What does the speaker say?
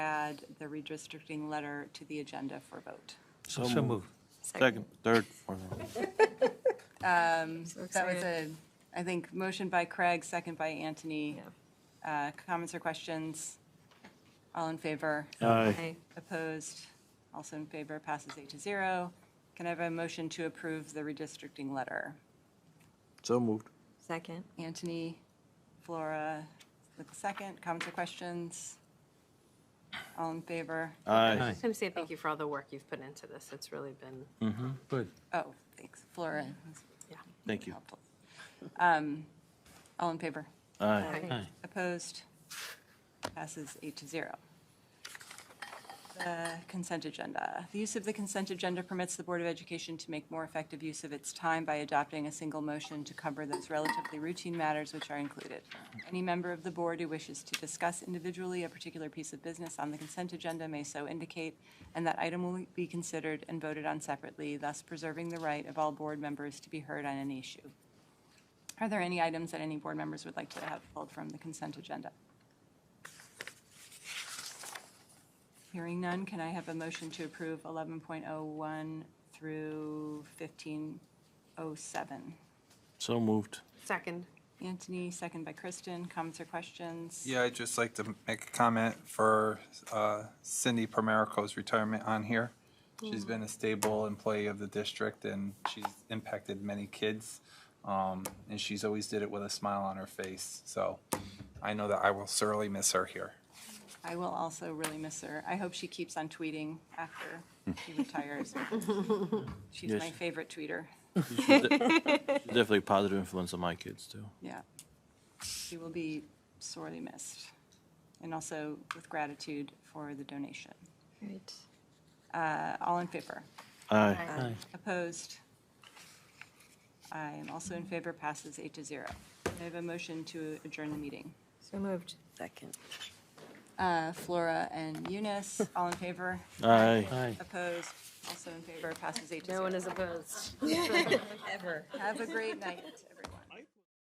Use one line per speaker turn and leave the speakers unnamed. add the redistricting letter to the agenda for vote.
So moved.
Second, third, fourth.
That was a, I think, motion by Craig, second by Anthony.
Yeah.
Uh, Comments or questions? All in favor?
Aye.
Opposed? Also in favor, passes eight to zero. Can I have a motion to approve the redistricting letter?
So moved.
Second.
Anthony, Flora, with the second, comments or questions? All in favor?
Aye.
I'm saying thank you for all the work you've put into this. It's really been
Good.
Oh, thanks, Flora. that's
Thank you.
helpful. Um, All in favor?
Aye.
Aye.
Opposed? Passes eight to zero. The consent agenda. The use of the consent agenda permits the Board of Education to make more effective use of its time by adopting a single motion to cover those relatively routine matters which are included. Any member of the board who wishes to discuss individually a particular piece of business on the consent agenda may so indicate, and that item will be considered and voted on separately, thus preserving the right of all board members to be heard on any issue. Are there any items that any board members would like to have pulled from the consent agenda? Hearing none, can I have a motion to approve 11.01 through 1507?
So moved.
second.
Anthony, second by Kristen. Comments or questions?
Yeah, I'd just like to make a comment for uh, Cindy Primerico's retirement on here. She's been a stable employee of the district and she's impacted many kids. um, And she's always did it with a smile on her face. So I know that I will sorely miss her here.
I will also really miss her. I hope she keeps on tweeting after she retires. She's
Yes.
my favorite tweeter.
Definitely a positive influence on my kids, too.
Yeah. She will be sorely missed. And also with gratitude for the donation.
Right.
Uh, All in favor?
Aye.
Aye.
Opposed? I am also in favor, passes eight to zero. I have a motion to adjourn the meeting.
So moved. Second.
Uh, Flora and Eunice, all in favor?
Aye.
Aye.
Opposed? Also in favor, passes eight to zero.
No one is opposed.
Ever.
Have a great night, everyone.